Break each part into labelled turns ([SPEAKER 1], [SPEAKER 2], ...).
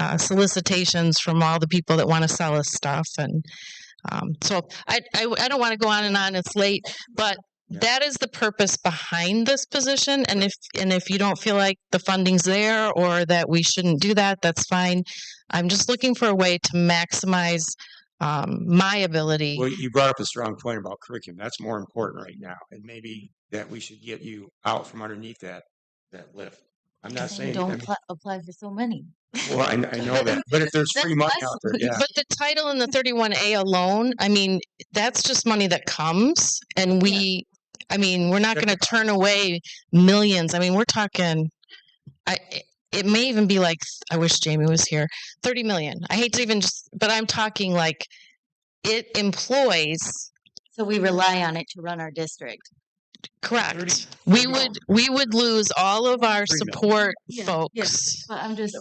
[SPEAKER 1] uh, solicitations from all the people that want to sell us stuff. And um, so I, I, I don't want to go on and on. It's late, but that is the purpose behind this position. And if and if you don't feel like the funding's there or that we shouldn't do that, that's fine. I'm just looking for a way to maximize um, my ability.
[SPEAKER 2] Well, you brought up a strong point about curriculum. That's more important right now. And maybe that we should get you out from underneath that, that lift. I'm not saying, I
[SPEAKER 3] don't
[SPEAKER 2] mean,
[SPEAKER 3] apply, apply for so many.
[SPEAKER 2] well, I, I know that, but if there's free money out there, yeah.
[SPEAKER 1] But the title and the thirty-one A alone, I mean, that's just money that comes and we, I mean, we're not gonna turn away millions. I mean, we're talking, I, it may even be like, I wish Jamie was here, thirty million. I hate to even just, but I'm talking like, it employs,
[SPEAKER 3] So we rely on it to run our district.
[SPEAKER 1] correct.
[SPEAKER 2] 30
[SPEAKER 1] We
[SPEAKER 2] no.
[SPEAKER 1] would, we would lose all of our
[SPEAKER 2] Three million.
[SPEAKER 1] support
[SPEAKER 3] Yeah, yeah.
[SPEAKER 1] folks,
[SPEAKER 3] But I'm just,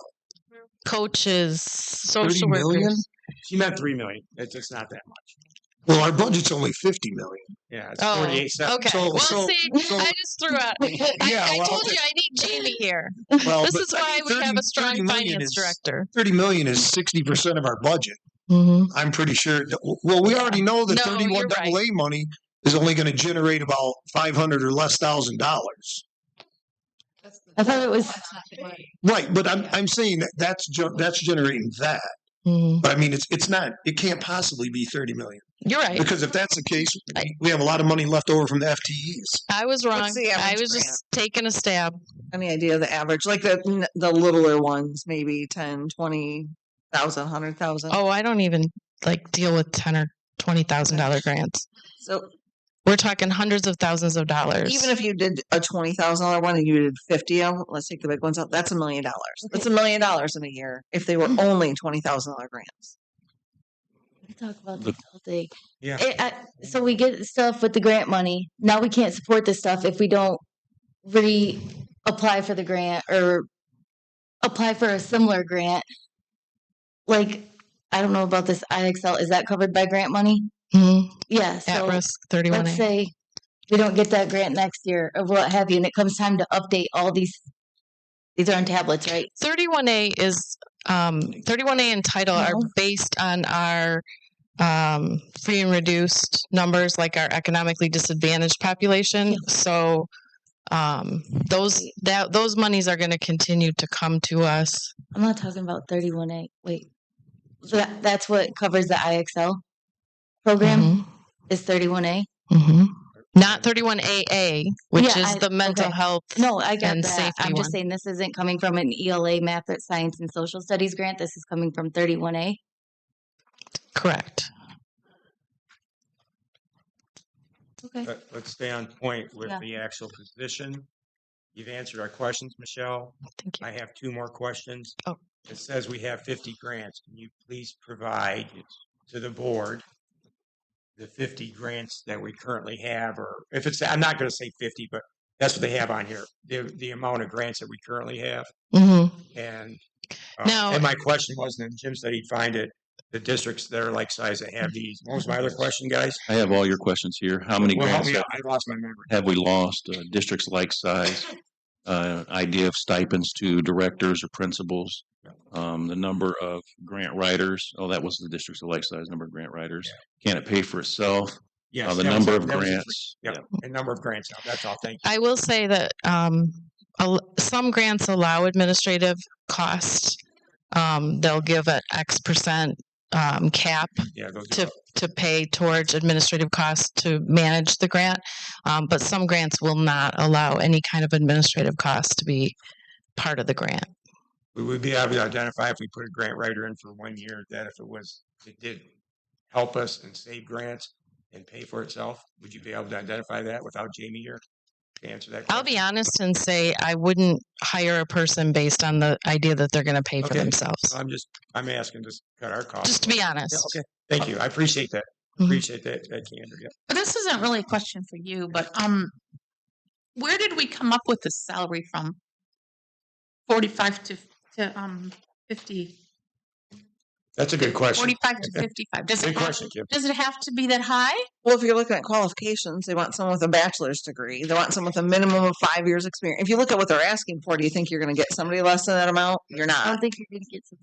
[SPEAKER 1] coaches, social
[SPEAKER 4] million?
[SPEAKER 1] workers.
[SPEAKER 2] She meant three million. It's just not that much.
[SPEAKER 4] Well, our budget's only fifty million.
[SPEAKER 2] Yeah, it's
[SPEAKER 1] Oh,
[SPEAKER 2] forty-eight cents.
[SPEAKER 1] Okay,
[SPEAKER 4] So-
[SPEAKER 1] well,
[SPEAKER 4] so-
[SPEAKER 1] see,
[SPEAKER 4] so-
[SPEAKER 1] I just threw out, I,
[SPEAKER 4] Yeah,
[SPEAKER 1] I
[SPEAKER 4] well,
[SPEAKER 1] told you I need Jamie here.
[SPEAKER 4] Well,
[SPEAKER 1] This
[SPEAKER 4] but,
[SPEAKER 1] is
[SPEAKER 4] I
[SPEAKER 1] why
[SPEAKER 4] mean,
[SPEAKER 1] we have
[SPEAKER 4] 30
[SPEAKER 1] a strong
[SPEAKER 4] 30 million
[SPEAKER 1] finance
[SPEAKER 4] is-
[SPEAKER 1] director.
[SPEAKER 4] Thirty million is sixty percent of our budget. I'm pretty sure. that- Well, we already know that
[SPEAKER 1] No, you're
[SPEAKER 4] thirty-one
[SPEAKER 1] right.
[SPEAKER 4] double A money is only going to generate about five hundred or less thousand dollars.
[SPEAKER 3] I thought it was,
[SPEAKER 4] Right, but I'm I'm saying that that's ge- that's generating that. But I mean, it's it's not. It can't possibly be thirty million
[SPEAKER 1] You're right.
[SPEAKER 4] because if that's the case, we have a lot of money left over from the FTEs.
[SPEAKER 1] I was wrong.
[SPEAKER 5] the
[SPEAKER 1] I
[SPEAKER 5] average
[SPEAKER 1] was just taking a stab.
[SPEAKER 5] any idea of the average like the the littler ones maybe 10 20 thousand hundred thousand
[SPEAKER 1] Oh, I don't even like deal with ten or twenty thousand dollar grants.
[SPEAKER 5] so
[SPEAKER 1] We're talking hundreds of thousands of dollars.
[SPEAKER 5] even if you did a twenty thousand dollar one and you did fifty of 'em, let's take the big ones out that's a million dollars that's a million dollars in a year if they were only twenty thousand dollar grants
[SPEAKER 3] we talk about
[SPEAKER 2] The-
[SPEAKER 3] this all day.
[SPEAKER 2] Yeah.
[SPEAKER 3] It- I- so we get stuff with the grant money. Now we can't support this stuff if we don't reapply for the grant or apply for a similar grant. Like, I don't know about this IXL. Is that covered by grant money?
[SPEAKER 1] Mhm.
[SPEAKER 3] Yeah.
[SPEAKER 1] at
[SPEAKER 3] So
[SPEAKER 1] risk thirty one
[SPEAKER 3] let's
[SPEAKER 1] A.
[SPEAKER 3] say we don't get that grant next year or what have you, and it comes time to update all these. These are on tablets, right?
[SPEAKER 1] Thirty one A is um thirty one A and title are
[SPEAKER 5] No.
[SPEAKER 1] based on our um free and reduced numbers like our economically disadvantaged population. So um those that those monies are gonna continue to come to us.
[SPEAKER 3] I'm not talking about 31A. Wait, So that, that's what covers the IXL program
[SPEAKER 1] Mm-hmm.
[SPEAKER 3] is 31A.
[SPEAKER 1] hmm Not 31AA, which
[SPEAKER 3] Yeah,
[SPEAKER 1] is
[SPEAKER 3] I-
[SPEAKER 1] the mental
[SPEAKER 3] okay.
[SPEAKER 1] health.
[SPEAKER 3] No, I get
[SPEAKER 1] And
[SPEAKER 3] that.
[SPEAKER 1] safety
[SPEAKER 3] I'm
[SPEAKER 1] one.
[SPEAKER 3] just saying this isn't coming from an ELA math, or science, and social studies grant. This is coming from 31A.
[SPEAKER 1] Correct.
[SPEAKER 3] Okay.
[SPEAKER 2] Let- Let's stay on point with
[SPEAKER 3] Yeah.
[SPEAKER 2] the actual position. You've answered our questions, Michelle.
[SPEAKER 1] Thank you.
[SPEAKER 2] I have two more questions.
[SPEAKER 1] Oh.
[SPEAKER 2] It says we have fifty grants. Can you please provide to the board the fifty grants that we currently have, or if it's, I'm not gonna say fifty, but that's what they have on here. The, the amount of grants that we currently have
[SPEAKER 1] Mhm.
[SPEAKER 2] and. uh,
[SPEAKER 1] Now-
[SPEAKER 2] And my question was, and Jim said he'd find it, the districts that are like size that have these. What was my other question, guys?
[SPEAKER 6] I have all your questions here. How many
[SPEAKER 2] Well, help
[SPEAKER 6] grants
[SPEAKER 2] me
[SPEAKER 6] have,
[SPEAKER 2] out. I lost my memory.
[SPEAKER 6] have we lost? Uh, districts like size, uh, idea of stipends to directors or principals, um, the number of grant writers. Oh, that was the districts of like size number of grant writers. Can it pay for itself?
[SPEAKER 2] Yes.
[SPEAKER 6] Uh, the
[SPEAKER 2] that was-
[SPEAKER 6] number of
[SPEAKER 2] that was a-
[SPEAKER 6] grants.
[SPEAKER 2] yeah. A number of grants. out. That's all. Thank you.
[SPEAKER 1] I will say that um, al- some grants allow administrative cost. Um, they'll give an X percent um, cap
[SPEAKER 2] Yeah, those
[SPEAKER 1] to to pay towards administrative costs to manage the grant, um, but some grants will not allow any kind of administrative costs to be part of the grant.
[SPEAKER 2] we would be able to identify if we put a grant writer in for one year, that if it was, it did help us and save grants and pay for itself, would you be able to identify that without Jamie here to answer that?
[SPEAKER 1] I'll be honest and say I wouldn't hire a person based on the idea that they're going to pay for
[SPEAKER 2] Okay.
[SPEAKER 1] themselves.
[SPEAKER 2] question? I'm just, I'm asking to s- cut our costs.
[SPEAKER 1] Just to be honest.
[SPEAKER 2] Yeah, Okay, thank you. I appreciate that.
[SPEAKER 1] Mhm.
[SPEAKER 2] Appreciate that, that candor. yeah.
[SPEAKER 7] But this isn't really a question for you, but um, where did we come up with this salary from? Forty-five to to um fifty.
[SPEAKER 2] That's a good question.
[SPEAKER 7] Forty-five to fifty-five. Does
[SPEAKER 2] Good
[SPEAKER 7] it have,
[SPEAKER 2] question, Kim.
[SPEAKER 7] does it have to be that high?
[SPEAKER 5] well if you're looking at qualifications they want someone with a bachelor's degree they want someone with a minimum of five years experience if you look at what they're asking for do you think you're going to get somebody less than that amount you're
[SPEAKER 3] I
[SPEAKER 5] not
[SPEAKER 3] don't think you're going to get